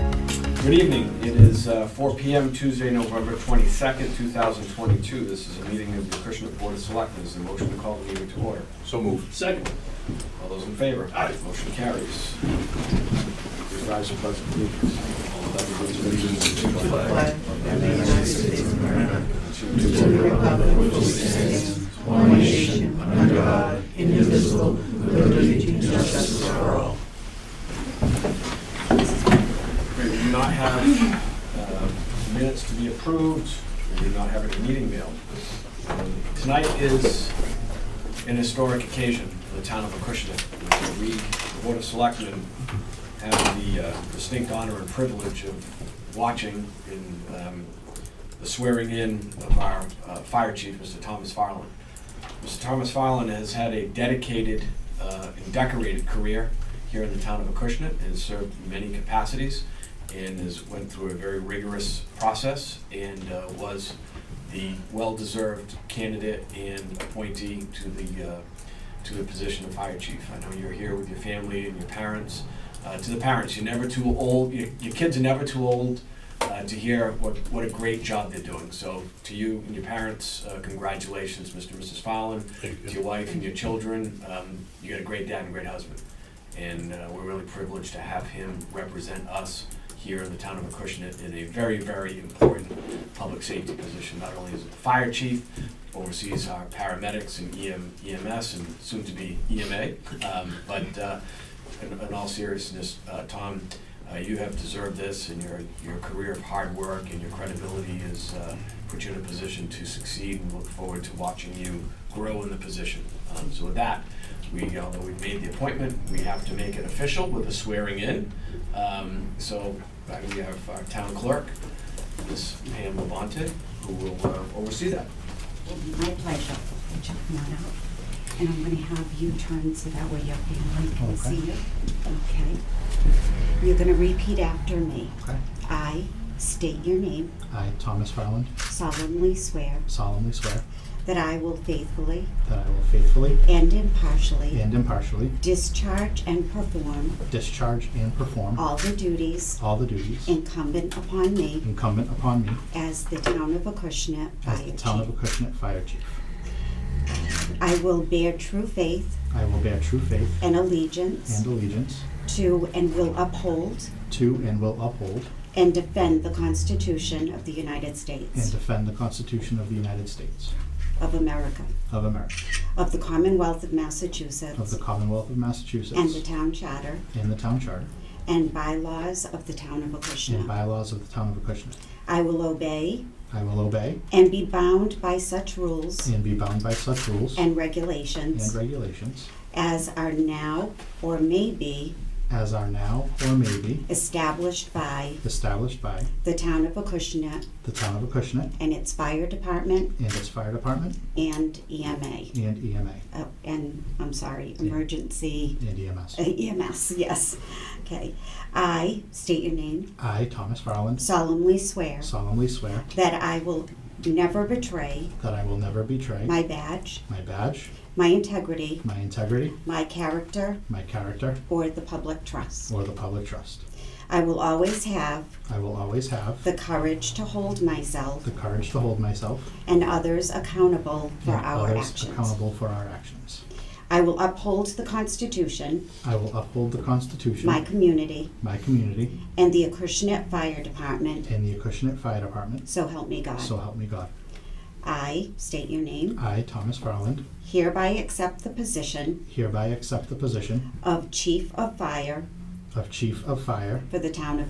Good evening. It is uh, 4 PM Tuesday, November 22nd, 2022. This is a meeting of the Acushnet Board of Selectmen. Is there a motion to call the meeting to order? So moved. Second. All those in favor? Aye. Motion carries. Please rise and pledge allegiance. flag of the United States of America and to the republic for which it stands, one nation, under God, indivisible, with liberty and justice for all. We do not have uh, minutes to be approved. We do not have any meeting mail. Um, Tonight is an historic occasion for the town of Acushnet. We, the Board of Selectmen, have the uh, distinct honor and privilege of watching in um, the swearing in of our uh, fire chief, Mr. Thomas Farland. Mr. Thomas Farland has had a dedicated uh, and decorated career here in the town of Acushnet and has served in many capacities and has went through a very rigorous process and uh, was the well-deserved candidate and appointee to the, uh, to the position of fire chief. I know you're here with your family and your parents. Uh, To the parents, you're never too old, your your kids are never too old uh, to hear what, what a great job they're doing. So to you and your parents, uh, congratulations, Mr. and Mrs. Fallon, to your wife and your children. Um, you got a great dad and great husband. And uh, we're really privileged to have him represent us here in the town of Acushnet in a very, very important public safety position. Not only is it the fire chief, oversees our paramedics and E EM, EMS and soon to be EMA. Um, but uh, in, in all seriousness, uh, Tom, uh, you have deserved this, and your, your career of hard work and your credibility has uh, put you in a position to succeed, and look forward to watching you grow in the position. Um, so with that, we, although we've made the appointment, we have to make it official with a swearing in. Um, so uh, we have our town clerk, Ms. Pam Labonte, who will uh, oversee that. It'll be my pleasure. I'll Check them out. And I'm gonna have you turn so that way your family can see you. Okay? You're gonna repeat after me. Okay. I state your name, I, Thomas Farland, solemnly swear solemnly swear that I will faithfully that I will faithfully and impartially and impartially discharge and perform discharge and perform all the duties all the duties incumbent upon me incumbent upon me as the town of Acushnet as the Fire Town of Chief. Acushnet Fire Chief. I will bear true faith I will bear true faith and and allegiance allegiance to and will uphold to and will uphold And defend the Constitution of the United and States defend the Constitution of the United States of America, of America, of the Commonwealth of of the Massachusetts, Commonwealth of and the Massachusetts, Town Charter and the Town Charter, and bylaws of the Town of and Acushnet. bylaws of the Town of Acushnet. I will obey I will obey and be bound by such rules and be bound by such rules and and regulations regulations as are now or may be as are now or may be established by established by the Town of Acushnet the Town of Acushnet and its Fire Department and its fire department and EMA. and E EMA Oh, And, I'm sorry, Emergency and E EMS. Uh, EMS, yes. Okay. I state your name, I, Thomas Farland, solemnly swear solemnly swear that I will never betray that I will never betray my badge, my badge, my integrity, my integrity, my character, my character, or the public trust. or the public trust. I will always have I will always have the courage to hold myself the courage to hold myself and others accountable for and our others actions. accountable for our actions. I will uphold the Constitution, I will uphold the Constitution, my community, my community, and the Acushnet Fire Department, and the Acushnet Fire Department. so help me So God. help me God. I state your name, I, Thomas Farland, hereby accept the position hereby accept the position of Chief of Fire of Chief of Fire for the town of